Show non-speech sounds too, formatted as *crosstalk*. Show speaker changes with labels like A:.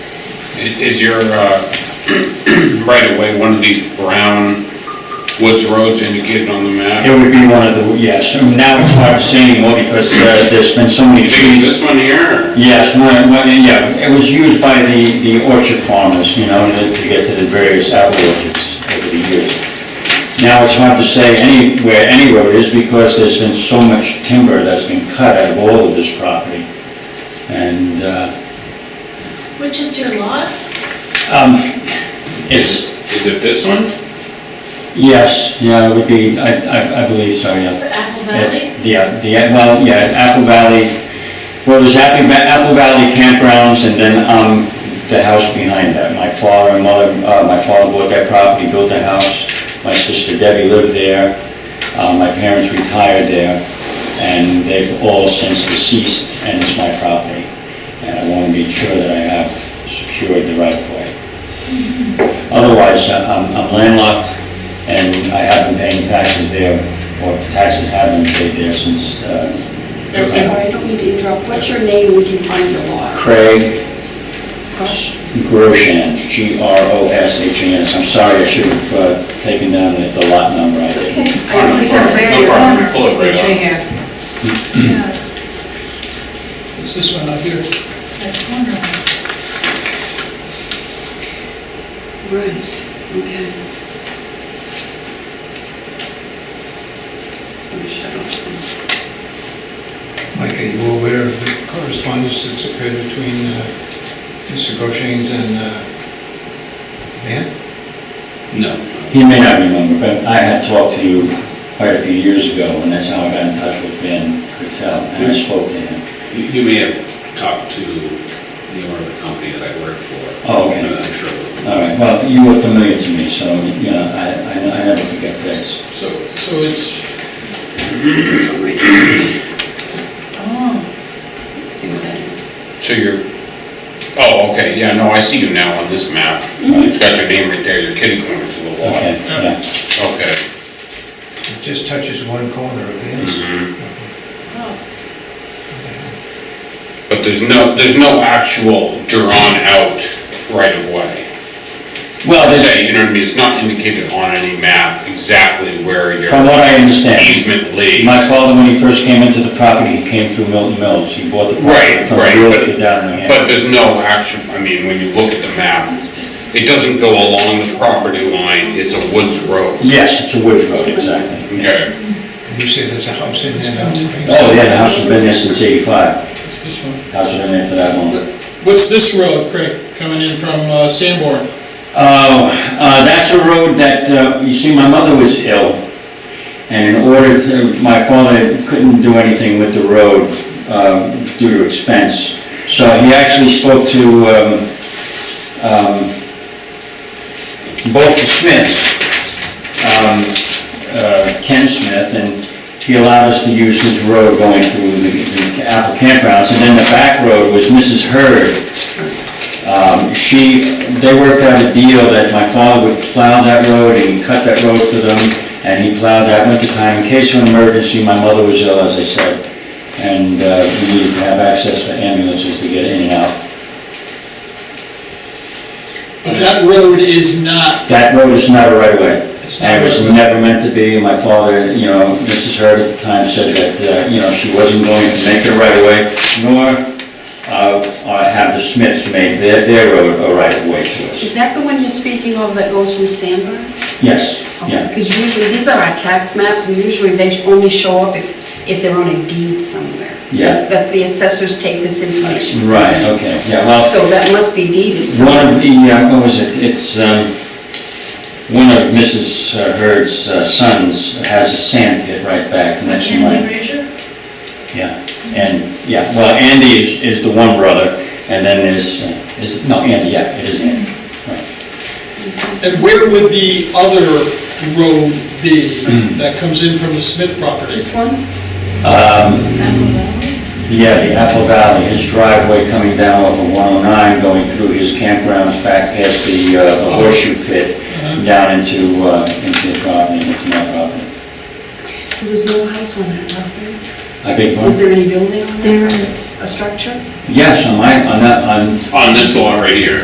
A: I- Is your *clears throat* right-of-way one of these brown woods roads indicated on the map?
B: It would be one of the, yes, I mean, now it's hard to say anymore because uh, there's been so many
A: You think it's this
B: trees.
A: one here? or-
B: Yes, one- one- yeah, it was used by the the orchard farmers, you know, to to get to the various apple orchards over the years. Now it's hard to say any, where any road is because there's been so much timber that's been cut out of all of this property. And uh,
C: Which is your lot?
B: it's,
A: Is it this one?
B: yes, yeah, it would be, I I I believe so, yeah.
C: The Apple Valley?
B: Yeah, the, well, yeah, Apple Valley, well, there's Apple Va- Apple Valley campgrounds and then um, the house behind that. My father and mother, uh, my father bought that property, built the house. My sister Debbie lived there. Uh, My parents retired there and they've all since deceased and it's my property. And I want to be sure that I have secured the right of way. Otherwise, I- I'm I'm landlocked, and I haven't paid taxes there, or taxes haven't been paid there since uh,
D: I'm sorry, I don't mean to interrupt. What's your name? We can find your lot.
B: Craig
D: Huh?
B: Groshans, G-R-O-S-H-A-N-S. I'm sorry, I should have uh, taken down the the lot number, I didn't.
D: Okay.
C: It's a very
A: No problem, pull it right
C: It's right
A: up.
C: here.
E: It's this one up here.
D: Right, okay. It's gonna shut off.
E: Mike, are you aware of the correspondence that's occurred between uh, Mr. Goshen's and uh, Van?
A: No.
B: He may not remember, but I had talked to you quite a few years ago, and that's how I got in touch with Ben Patel, and I spoke to him.
A: You you may have talked to the owner of the company that I work for.
B: Oh, okay.
A: I'm sure. it was-
B: All right, well, you were familiar to me, so, you know, I I- I never forget face.
A: So, so it's,
D: It's this one right here. Oh. See what that is?
A: so you're, oh, okay, yeah, no, I see you now on this map. It's got your name right there, your kitty corner to the wall.
B: Mm-hmm. Okay, yeah.
A: Okay.
E: It just touches one corner of Van's. Okay.
A: But there's no, there's no actual drawn-out right-of-way.
B: Well, there's-
A: Say, you know what I mean, it's not indicated on any map exactly where your
B: From what I understand.
A: easement leads.
B: My father, when he first came into the property, he came through Milton Mills. He bought the property
A: Right,
B: from
A: right,
B: a
A: but,
B: realtor down in
A: but
B: Manhattan.
A: there's no actual, I mean, when you look at the map,
D: It's this one.
A: it doesn't go along the property line, it's a woods road.
B: Yes, it's a wood road, exactly.
A: Okay,
E: And You say there's a house in there now?
B: Oh, yeah, the house has been there since eighty-five.
F: This one.
B: House has been there for that long.
F: What's this road, Craig, coming in from uh, Sanborn?
B: Oh, uh, that's a road that, uh, you see, my mother was ill, and in order to, my father couldn't do anything with the road um, due to expense. So he actually spoke to um, um, both the Smiths, um, uh, Ken Smith, and he allowed us to use his road going through the the Apple campgrounds. And then the back road was Mrs. Hurd, um, She, they worked out a deal that my father would plow that road and he cut that road for them, and he plowed that winter time in case of an emergency. My mother was ill, as I said, and uh, we needed to have access for ambulances to get in and out.
F: But that road is not,
B: That road is not a right of way.
F: It's not
B: And it was
F: a right-of-way.
B: never meant to be. My father, you know, Mrs. Hurd at the time said that, uh, you know, she wasn't going to make it a right of way, nor uh, uh, have the Smiths make their, their road a right of way to us.
D: Is that the one you're speaking of that goes from Sandburn?
B: Yes, yeah.
D: Because usually, these are our tax maps, and usually they only show up if, if they're on a deed somewhere.
B: Yeah.
D: That's- That the assessors take this information. from.
B: Right, okay, yeah, well.
D: So that must be deeded
B: One
D: somewhere.
B: of the, uh, what was it, it's, um, one of Mrs. Hurd's uh, sons has a sand pit right back next to
C: Andy
B: mine.
C: Fraser?
B: Yeah, and, yeah, well, Andy is, is the one brother, and then there's, uh, is, no, Andy, yeah, it is Andy. Right.
F: and where would the other road be that comes in from the Smith property?
D: This one?
C: Apple Valley?
B: Yeah, the Apple Valley, his driveway coming down off of 109, going through his campgrounds back past the uh, the horseshoe pit, down into, uh, into the property, into my property.
D: So there's no house on that property?
B: I beg your
D: Is
B: pardon?
D: there any building on it? There is. A structure?
B: Yes, on my, on that, on
A: on this lot right here.